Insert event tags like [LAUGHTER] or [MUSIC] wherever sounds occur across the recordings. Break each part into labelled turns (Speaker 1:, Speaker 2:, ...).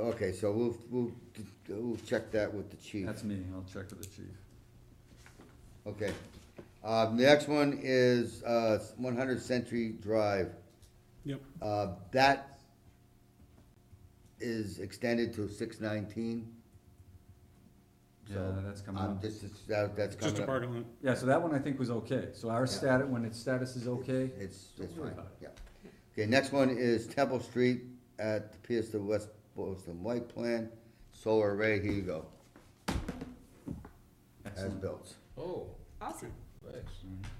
Speaker 1: Okay, so we'll, we'll, we'll check that with the chief.
Speaker 2: That's me, I'll check with the chief.
Speaker 1: Okay. Uh, the next one is, uh, one hundred Century Drive.
Speaker 3: Yep.
Speaker 1: Uh, that is extended to six nineteen.
Speaker 2: Yeah, that's coming
Speaker 1: I'm
Speaker 2: up.
Speaker 1: just, it's- that, that's
Speaker 3: Just a
Speaker 1: coming up.
Speaker 3: parking lot.
Speaker 2: Yeah, so that one I think was okay, so our stat, when its status is okay,
Speaker 1: It's,
Speaker 2: Don't
Speaker 1: it's
Speaker 2: worry
Speaker 1: fine,
Speaker 2: about
Speaker 1: yeah. Okay, next one is Temple Street at the Pierce to West Boylston White Plan, solar array, here you go, as
Speaker 2: excellent.
Speaker 1: built.
Speaker 4: Oh,
Speaker 5: Awesome.
Speaker 4: nice.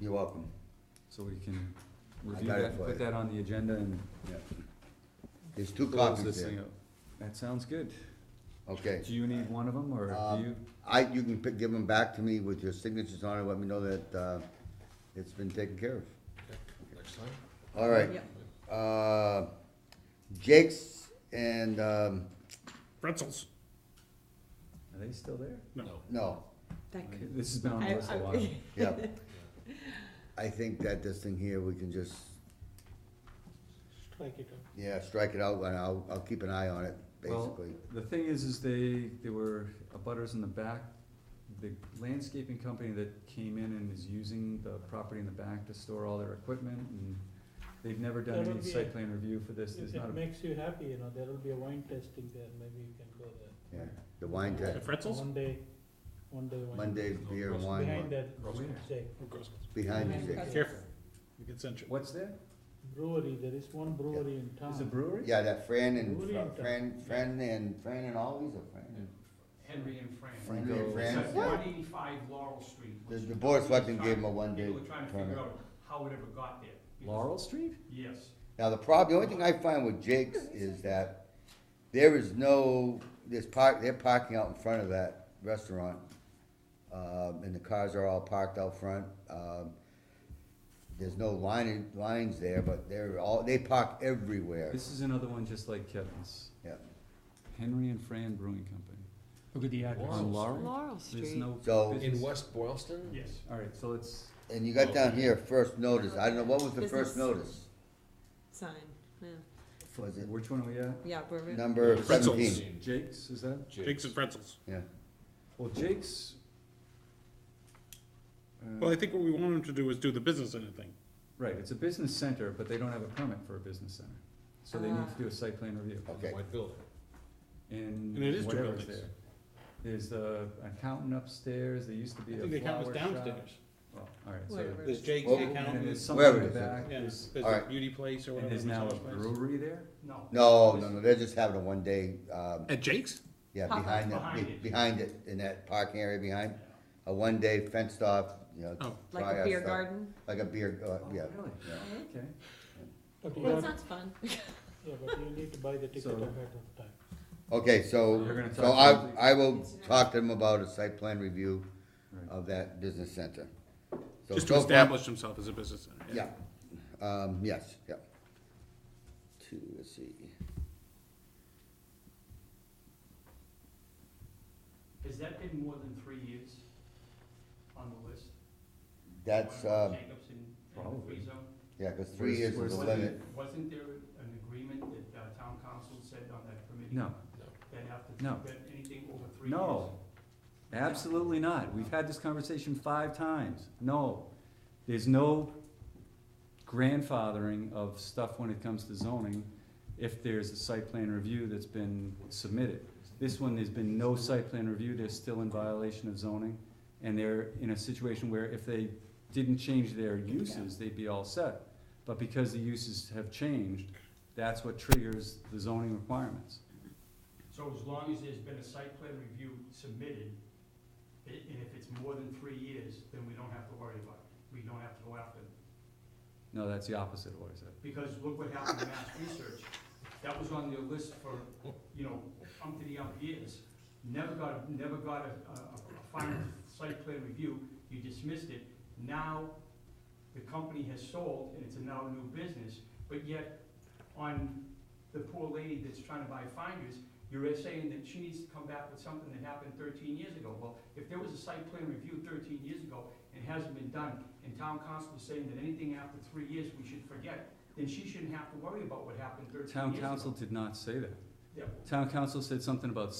Speaker 1: You're welcome.
Speaker 2: So we can review
Speaker 1: got it
Speaker 2: that,
Speaker 1: for
Speaker 2: put
Speaker 1: you.
Speaker 2: that on the agenda and
Speaker 1: There's two
Speaker 2: close
Speaker 1: copies
Speaker 2: this thing
Speaker 1: there,
Speaker 2: up. That sounds good.
Speaker 1: okay.
Speaker 2: Do you need one of them, or
Speaker 1: Um,
Speaker 2: do you?
Speaker 1: I, you can pick, give them back to me with your signatures on it, let me know that, uh, it's been taken care of.
Speaker 4: Next time?
Speaker 1: All right,
Speaker 5: Yep.
Speaker 1: uh, Jake's and, um,
Speaker 3: Pretzels.
Speaker 2: Are they still there?
Speaker 3: No.
Speaker 1: no,
Speaker 5: That could.
Speaker 2: This has been on
Speaker 5: I-
Speaker 2: the list a
Speaker 5: I-
Speaker 2: while.
Speaker 5: [LAUGHS]
Speaker 2: [LAUGHS]
Speaker 1: yeah. I think that this thing here, we can just,
Speaker 4: Thank you.
Speaker 1: yeah, strike it out, and I'll, I'll keep an eye on it,
Speaker 2: Well,
Speaker 1: basically.
Speaker 2: the thing is, is they, there were abutters in the back. The landscaping company that came in and is using the property in the back to store all their equipment, and they've never done
Speaker 6: That'll
Speaker 2: any
Speaker 6: be
Speaker 2: site
Speaker 6: a-
Speaker 2: plan review for this, there's
Speaker 6: If
Speaker 2: not
Speaker 6: it
Speaker 2: a,
Speaker 6: makes you happy, you know, there will be a wine tasting there, maybe you can go there.
Speaker 1: Yeah, the wine
Speaker 3: The
Speaker 1: test,
Speaker 3: pretzels?
Speaker 6: One day, one day wine.
Speaker 1: Monday beer and
Speaker 6: Behind
Speaker 1: wine,
Speaker 6: that,
Speaker 2: Where?
Speaker 6: say,
Speaker 3: Oh, gross.
Speaker 1: behind you, Jake.
Speaker 5: Pretzels.
Speaker 3: Careful. You get censured.
Speaker 2: what's there?
Speaker 6: brewery, there is one brewery in town.
Speaker 7: Ah.
Speaker 2: Is a brewery?
Speaker 1: Yeah, that Fran and,
Speaker 6: Who do you-
Speaker 1: Fran, Fran and, Fran and Ollie's, or Fran? and-
Speaker 7: Henry and Fran.
Speaker 1: Henry and
Speaker 7: It's
Speaker 1: Fran,
Speaker 7: at
Speaker 1: yeah.
Speaker 7: one eighty-five Laurel Street.
Speaker 1: The,
Speaker 7: which
Speaker 1: the board of selectmen
Speaker 7: people
Speaker 1: gave
Speaker 7: were
Speaker 1: him a one-day
Speaker 7: People were trying to
Speaker 1: permit.
Speaker 7: figure out how it ever got there. because-
Speaker 2: Laurel Street?
Speaker 7: Yes.
Speaker 1: Now, the prob, the only thing I find with Jake's is that there is no, there's park, they're parking out in front of that restaurant. Um, and the cars are all parked out front, um, there's no lining, lines there, but they're all, they park everywhere,
Speaker 2: This is another one just like Kevin's,
Speaker 1: yeah.
Speaker 2: Henry and Fran Brewing Company.
Speaker 6: Look at the
Speaker 2: On Laurel?
Speaker 5: Laurel
Speaker 2: There's
Speaker 5: Street.
Speaker 2: no
Speaker 1: So-
Speaker 2: business.
Speaker 4: In West Boylston?
Speaker 7: Yes.
Speaker 2: Alright, so let's,
Speaker 1: And you got down here, first notice, I don't know, what was the
Speaker 5: Business.
Speaker 1: first notice?
Speaker 5: Sign, yeah,
Speaker 1: Was it
Speaker 2: which one are we at?
Speaker 5: yeah, we're.
Speaker 1: number
Speaker 3: Pretzels.
Speaker 1: seventeen?
Speaker 2: Jake's, is that?
Speaker 3: Jake's and pretzels.
Speaker 1: Yeah,
Speaker 2: Well, Jake's. uh,
Speaker 3: Well, I think what we want them to do is do the business in a thing.
Speaker 2: Right, it's a business center, but they don't have a permit for a business center, so they need
Speaker 5: Ah.
Speaker 2: to do a site plan review.
Speaker 1: okay,
Speaker 4: White building.
Speaker 2: And
Speaker 3: And it is two
Speaker 2: whatever's
Speaker 3: buildings.
Speaker 2: there. There's the accountant upstairs, there used to be
Speaker 6: I
Speaker 2: a flower shop.
Speaker 6: think the accountant's downstairs.
Speaker 2: Well, alright, so.
Speaker 5: Whatever.
Speaker 6: There's Jake's
Speaker 1: Well,
Speaker 6: the
Speaker 2: And then there's
Speaker 6: accountant,
Speaker 2: something in
Speaker 1: Wherever
Speaker 2: the
Speaker 1: it is, I
Speaker 2: back,
Speaker 6: yeah,
Speaker 2: there's,
Speaker 6: there's
Speaker 1: All
Speaker 6: a
Speaker 1: right.
Speaker 6: beauty place or
Speaker 2: and
Speaker 6: whatever.
Speaker 2: there's now a
Speaker 6: massage place.
Speaker 2: brewery there,
Speaker 7: No.
Speaker 1: no, no, no, they're just having a one-day, um,
Speaker 3: At Jake's?
Speaker 1: Yeah,
Speaker 5: Pop-
Speaker 1: behind
Speaker 7: behind
Speaker 1: it,
Speaker 7: it.
Speaker 1: behind it, in that parking area behind, a one-day fenced off, you know.
Speaker 3: Oh.
Speaker 5: Like
Speaker 1: try
Speaker 5: a
Speaker 1: out
Speaker 5: beer
Speaker 1: stuff.
Speaker 5: garden.
Speaker 1: Like a beer, uh,
Speaker 2: Oh,
Speaker 1: yeah,
Speaker 2: really?
Speaker 1: yeah.
Speaker 2: okay.
Speaker 6: But you
Speaker 5: That
Speaker 6: have,
Speaker 5: sounds fun.
Speaker 6: yeah, but you need to buy the ticket
Speaker 2: So-
Speaker 6: ahead of time.
Speaker 1: Okay,
Speaker 2: You're
Speaker 1: so,
Speaker 2: gonna
Speaker 1: so
Speaker 2: talk
Speaker 1: I,
Speaker 2: to-
Speaker 1: I will talk to them about a site plan review
Speaker 2: Right.
Speaker 1: of that business center. So
Speaker 3: Just
Speaker 1: so
Speaker 3: to
Speaker 1: far-
Speaker 3: establish himself as a business owner.
Speaker 1: Yeah, um, yes, yeah. Two, let's see,
Speaker 7: Has that been more than three years on the list?
Speaker 1: that's,
Speaker 7: One of
Speaker 1: um,
Speaker 7: the Jacobs in- in the
Speaker 2: Probably.
Speaker 7: free zone?
Speaker 1: yeah, cause three years is
Speaker 2: Where's-
Speaker 1: the
Speaker 2: where's the-
Speaker 1: limit,
Speaker 7: Wasn't there an agreement that uh, town council said on that committee?
Speaker 2: No,
Speaker 7: That after,
Speaker 2: No.
Speaker 7: that anything over three years?
Speaker 2: no, absolutely not, we've had this conversation five times, no. There's no grandfathering of stuff when it comes to zoning if there's a site plan review that's been submitted. This one, there's been no site plan review, they're still in violation of zoning, and they're in a situation where if they didn't change their uses, they'd be all set. But because the uses have changed, that's what triggers the zoning requirements.
Speaker 7: So as long as there's been a site plan review submitted, i- and if it's more than three years, then we don't have to worry about it. We don't have to go after them.
Speaker 2: No, that's the opposite of what I said.
Speaker 7: Because look what happened to Mass Research. That was on their list for, you know, umpty up years. Never got, never got a, a, a final site plan review. You dismissed it. Now, the company has sold and it's a now new business, but yet on the poor lady that's trying to buy finders, you're saying that she needs to come back with something that happened thirteen years ago. Well, if there was a site plan review thirteen years ago and hasn't been done, and town council is saying that anything after three years, we should forget, then she shouldn't have to worry about what happened thirteen years
Speaker 2: Town
Speaker 7: ago.
Speaker 2: council did not say that.
Speaker 7: Yeah.
Speaker 2: Town council said something about